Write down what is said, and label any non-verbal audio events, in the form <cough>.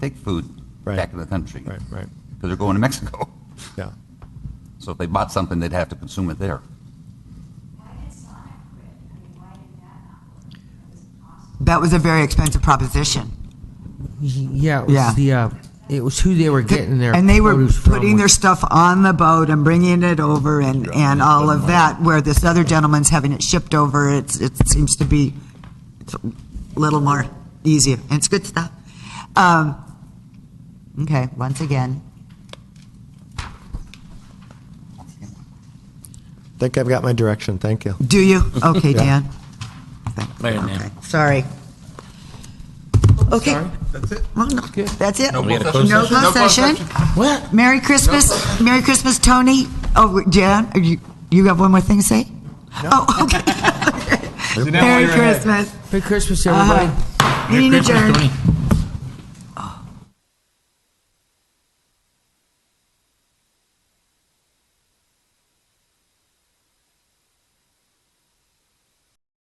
take food Right. back to the country. Right, right, Because they're going to Mexico. yeah. So if they bought something, they'd have to consume it there. Why did Sonic quit? I mean, why did that not work? That was impossible. That was a very expensive proposition. Yeah, it was Yeah. the uh, it was who they were getting their and they were produce from, putting their which- stuff on the boat and bringing it over and, and all of that. Where this other gentleman's having it shipped over, it's it seems to be it's a little more easier and it's good stuff. Um, okay, once again, Think I've got my direction, thank you. do <laughs> you? Okay, Yeah. Dan. Okay, sorry. Okay. That's it. Well, no, that's it. No closed session? closed session. What? Merry Christmas. Merry Christmas, Tony. Oh, Jan, are you, you have one more thing to say? Oh, okay. Merry Christmas. Uh-huh. Merry Christmas, everybody. Meeting adjourned. Tony.